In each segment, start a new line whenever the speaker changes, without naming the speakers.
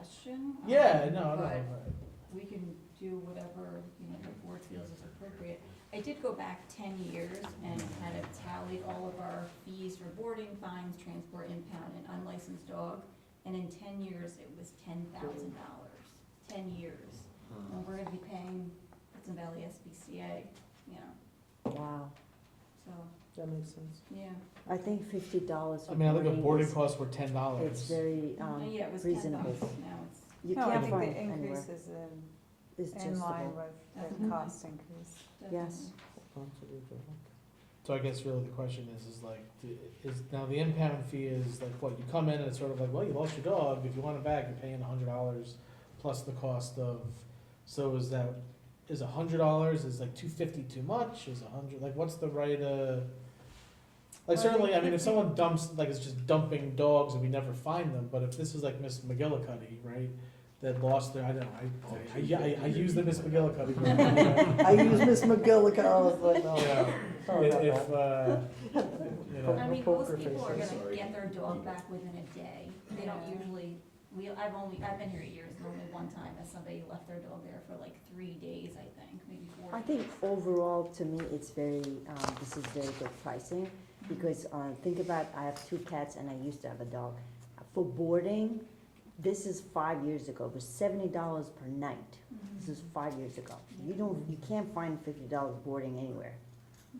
action. um,
Yeah, no, no,
but
right.
we can do whatever, you know, the board feels is appropriate. I did go back ten years and kind of tallied all of our fees for boarding, fines, transport, impound, and unlicensed dog. And in ten years, it was ten thousand dollars, ten years. And we're gonna be paying Hudson Valley SPCA, you know,
Wow,
so,
that makes sense.
yeah.
I think fifty dollars
I
for
mean, I think the
boarding
boarding
is,
costs were ten
it's
dollars.
very,
And
um,
yeah, it was ten
reasonable.
bucks, now it's,
you
No, I
can't
think
find
the
anywhere.
increase is in,
It's just
in line
about.
with the cost increase.
Yes.
So I guess really the question is, is like, d- is, now the impound fee is like, what, you come in and it's sort of like, well, you lost your dog, if you want it back, you're paying a hundred dollars plus the cost of, so is that, is a hundred dollars, is like two fifty too much, is a hundred, like, what's the right, uh?
Well,
Like
I
certainly, I
think
mean, if
if
someone dumps, like, it's just dumping dogs and we never find them, but if this is like Miss McGillicuddy, right? That lost their, I don't know, I, I, I, I use the Miss McGillicuddy. example.
I use Miss McGillic, I was like,
Yeah.
oh, sorry
If,
about
if,
that.
uh, you know.
I
No
mean,
poker
most people are
faces.
gonna get their dog back within a day. They don't
Yeah.
usually, we, I've only, I've been here years, and only one time that somebody left their dog there for like three days, I think, maybe four.
I think overall, to me, it's very, um, this is very good pricing, because, uh, think about, I have two cats and I used to have a dog. For boarding, this is five years ago, it was seventy dollars per night.
Mm-hmm.
This is five years ago. You don't, you can't find fifty dollars boarding anywhere.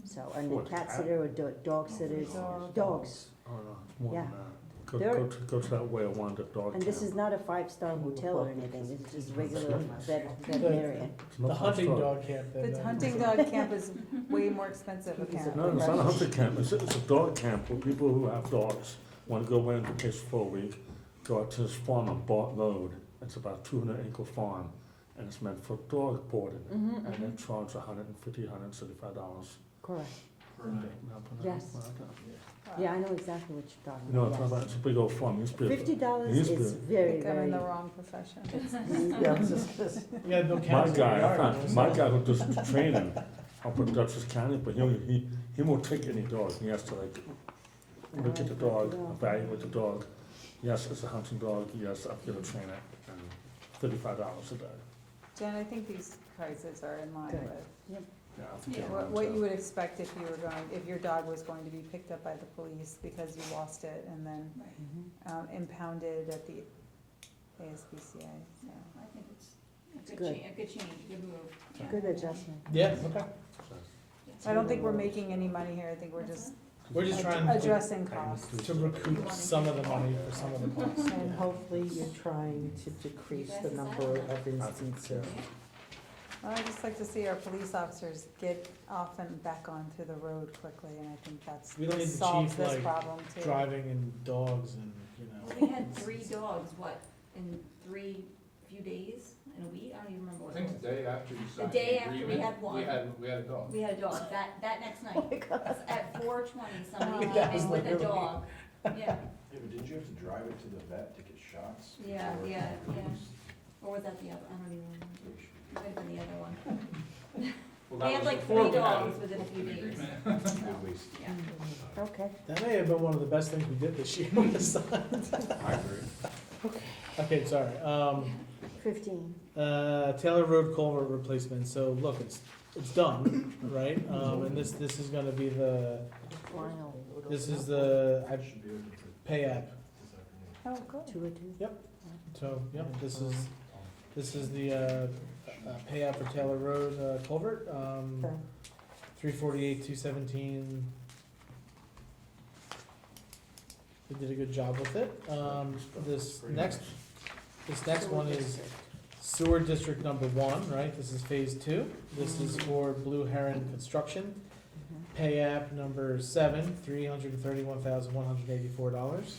So, and the
For a
cat
cat?
sitter or do- dog sitters,
Dog.
dogs.
Oh, no.
Yeah.
Go,
There-
go, to- go to that way I wandered dog.
And this is not a five-star hotel or anything, it's just regular vet, veterinarian.
The hunting dog camp that.
But
uh,
hunting dog camp is way more expensive
No,
apparently.
it's not a hunting camp, it's, it's a dog camp where people who have dogs want to go in and case for a week, go out to this farm on Bart Road. It's about two hundred acre farm and it's meant for dog boarding.
Mm-hmm,
And they charge a hundred and fifty, hundred and seventy-five dollars.
correct.
Per night.
Yes.
Uh,
Yeah, I know exactly what you're talking
No, it's not
about,
about, it's a big old farm, it's big.
Fifty dollars
He's good.
is
I
very,
think I'm
very.
in the wrong profession.
Yeah, I was just gonna say.
Yeah, Bill
My
County.
guy, I found, my guy who does the training up in Dutchess County, but he, he, he won't take any dog, he has to like, look at the dog, evaluate the dog. Yes, it's a hunting dog, yes, I'm gonna train it, and thirty-five dollars a day.
Jen, I think these prices are in line
Good.
with
Yeah, I think
Yeah,
I'm
what,
on
what
to-
you would expect if you were going, if your dog was going to be picked up by the police because you lost it and then,
Right,
Mhm.
um, impounded at the ASPCA, so.
so I think it's a good
Good.
change, a good change, a good move. yeah.
Good adjustment.
Yeah, okay,
I don't think we're making any money here, I think we're just
we're just trying to,
addressing costs.
to recoup some of the money for some of the costs.
And hopefully you're trying to decrease the number of instances.
Well, I just like to see our police officers get off and back onto the road quickly, and I think that's,
We don't need the
solves
chief,
this
like,
problem too.
Driving and dogs and, you
Well,
know.
we had three dogs, what, in three, few days, in a week, I don't even remember
I
what it
think
was.
the day after you signed
The day
the
after we
agreement.
had one.
We had, we had a dog.
We had a dog, that, that next night, at four twenty, somebody
Oh That
came
was
in with a
literally-
dog, yeah,
Yeah, but didn't you have to drive it to the vet to get shots?
Yeah,
before it
yeah, yeah.
was-
or was that the other, I don't even remember,
they should-
it might have been the other one.
Well,
They
that
had
was
like
before
three
we had
dogs
it.
within a few
An
days.
agreement.
Good waste.
Yeah.
Mm-hmm. Okay,
That may have been one of the best things we did this year on the signs.
I agree.
Okay, sorry, um,
fifteen.
uh, Taylor Road culvert replacement, so look, it's, it's done, right? Um, and this, this is gonna be the,
Final,
this is the, I
I should be able to.
pay app,
this
Oh,
afternoon.
good.
two or two.
so, yeah, this is, this is the, uh, uh, pay app for Taylor Road uh, culvert, um,
Okay.
three forty-eight, two seventeen. They did a good job with it, um, this
Pretty
next,
much.
this next
Sewer
one is
district.
sewer district number one, right, this is phase two, this is for Blue Heron Construction.
Mm-hmm.
Mhm.
Pay app number seven, three hundred and thirty-one thousand, one hundred and eighty-four dollars.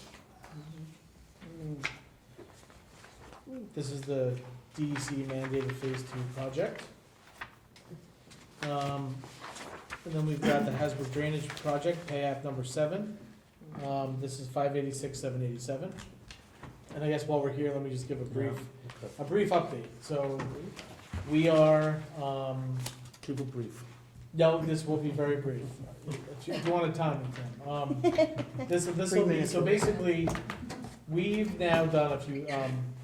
Mm.
This is the DEC mandated phase two project. Um, and then we've got the Hasbrook Drainage Project, pay app number seven. Um, this is five eighty-six, seven eighty-seven. And I guess while we're here, let me just give a brief,
Okay,
a brief update. So we are, um,
Keep it brief.
no, this will be very brief. If you- if you want to time, Tim. Um, This, this will be, so basically, we've now done a few, um,